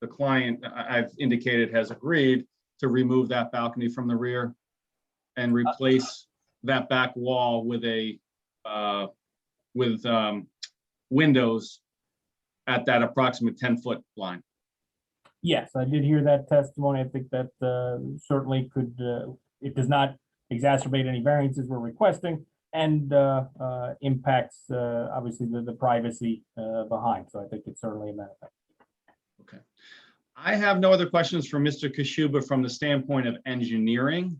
the client, I, I've indicated has agreed to remove that balcony from the rear and replace that back wall with a, uh, with, um, windows at that approximate ten-foot line. Yes, I did hear that testimony. I think that uh, certainly could, uh, it does not exacerbate any variances we're requesting and uh, uh, impacts, uh, obviously, the the privacy uh, behind. So I think it's certainly a benefit. I have no other questions for Mr. Kishuba from the standpoint of engineering.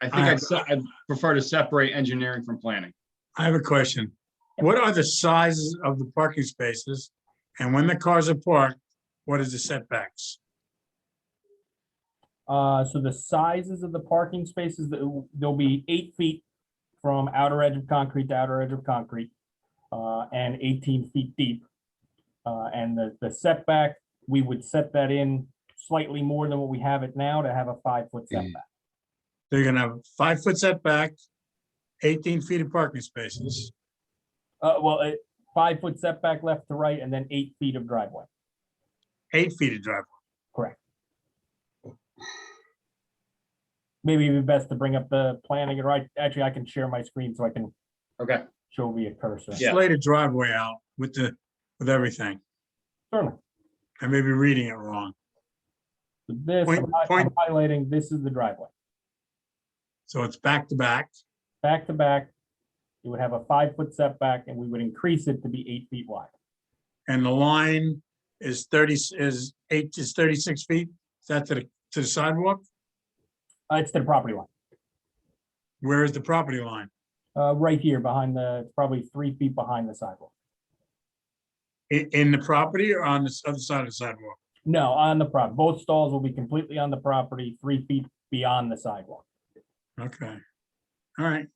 I think I- I'd, se- I'd prefer to separate engineering from planning. I have a question. What are the sizes of the parking spaces? And when the cars are parked, what is the setbacks? Uh, So the sizes of the parking spaces, th- they'll be eight feet from outer edge of concrete to outer edge of concrete uh, and 18 feet deep. Uh, And the the setback, we would set that in slightly more than what we have it now to have a five-foot setback. They're gonna have a five-foot setback, eighteen feet of parking spaces. Uh, well, it, five foot setback left to right and then eight feet of driveway. eight feet of driveway. Maybe it'd be best to bring up the planning, right? Actually, I can share my screen so I can Okay. show via cursor. Yeah. Slate a driveway out with the, with everything. Certainly. I may be reading it wrong. This, Point- I'm hi- I'm point- highlighting, this is the driveway. So it's back to back. Back to back, it would have a five foot setback and we would increase it to be eight feet wide. And the line is thirty, is eight, is thirty-six feet. Is that to the, to the sidewalk? Uh, it's to the property line, Where is the property line? uh, right here behind the, it's probably three feet behind the sidewalk. In, in the property or on the s- other side of the sidewalk? No, on the prop, both stalls will be completely on the property, three feet beyond the sidewalk. Okay. All right.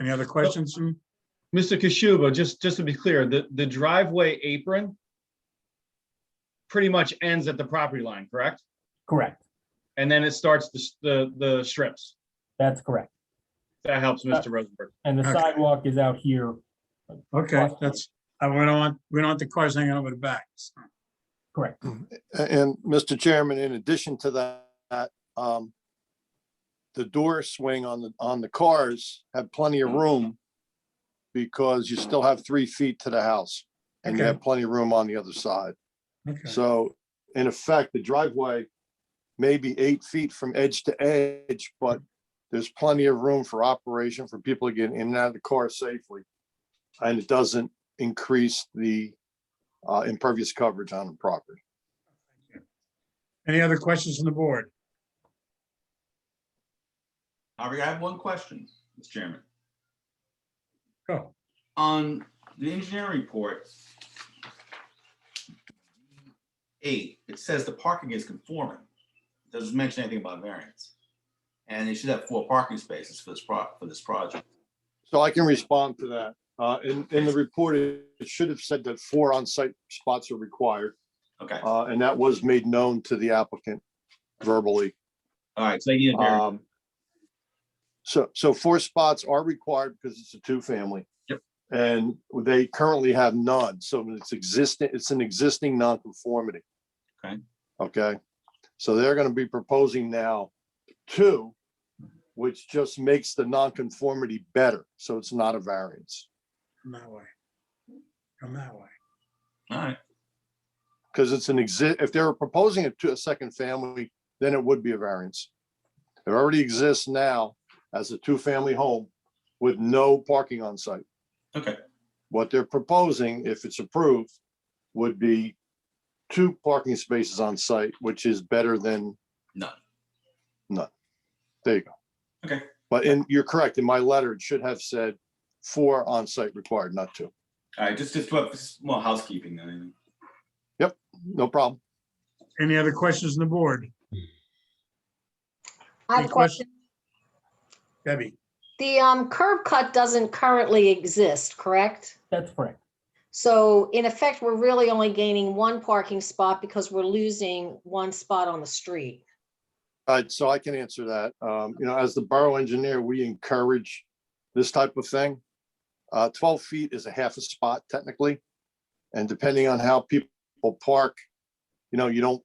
Any other questions from, Mr. Kishuba, just, just to be clear, the, the driveway apron pretty much ends at the property line, correct? Correct. And then it starts the, s- the, the strips. That's correct. That helps, Mr. Rosenberg. And the Okay. sidewalk is out here okay, that's, I, we don't want, we don't want the cars hanging over the backs. Correct. A- And Mr. Chairman, in addition to that, um, the door swing on the, on the cars have plenty Mm. of room because you still have three feet to the house and you Okay. have plenty of room on the other side. Okay. So in effect, the driveway may be eight feet from edge to edge, but there's plenty of room for operation for people to get in and out of the car safely. And it doesn't increase the, uh, impervious coverage on the property. Any other questions from the board? Harvey, I have one question, Mr. Chairman. Go. On the engineering report, eight, it says the parking is conforming. It Doesn't mention anything about variance. And they should have four parking spaces for this pro, for this project. So I can respond to that. Uh, in, in the report, it it should have said that four on-site spots are required, Okay, all uh, and that was made known to the applicant verbally. right, so they need a variance. Um, so, so four spots are required because it's a two-family. Yep. And they currently have none, so it's existing, it's an existing nonconformity. Okay. Okay, so they're gonna be proposing now two, which just makes the nonconformity better, so it's not a variance. Come that way. Come that way. All right, Because it's an exist, if they were proposing it to a second family, then it would be a variance. It already exists now as a two-family home with no parking on site. okay, What they're proposing, if it's approved, would be two parking spaces on site, which is better than. None. None. There you go. Okay. But in, you're correct, in my letter, it should have said four on site required, not two. all right, just, just what- just more housekeeping than anything. No problem. Any other questions on the board? I have Any a question. Debbie, The um, curb cut doesn't currently exist, correct? That's correct. So in effect, we're really only gaining one parking spot because we're losing one spot on the street. All right, Uh, so I can answer that. Um, you know, as the borough engineer, we encourage this type of thing. Uh, twelve feet is a half a spot technically. And depending on how people park, you know, you don't